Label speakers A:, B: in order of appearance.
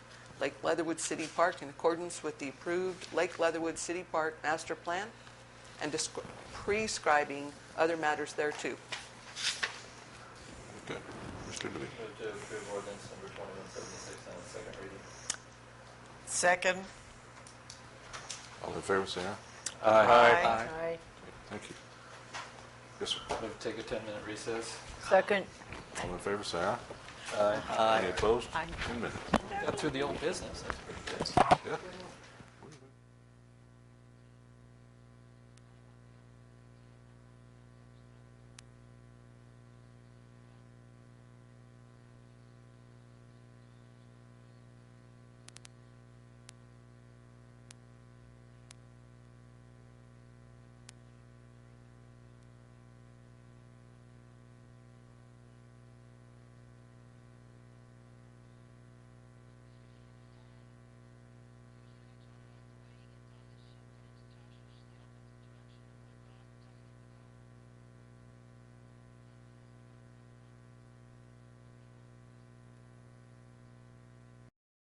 A: Lake Leatherwood City Park in accordance with the approved Lake Leatherwood City Park master plan and descri- prescribing other matters thereto.
B: Okay. Mr. Dooley.
C: Move to approve ordinance number 2176 on its second reading.
D: Second.
B: All in favor, say aye.
D: Aye.
B: Thank you. Yes, sir.
C: Move to take a 10-minute recess.
E: Second.
B: All in favor, say aye.
C: Aye.
B: Any opposed?
E: Aye.
B: Ten minutes.
C: Got through the old business. That's pretty good.
B: Yeah.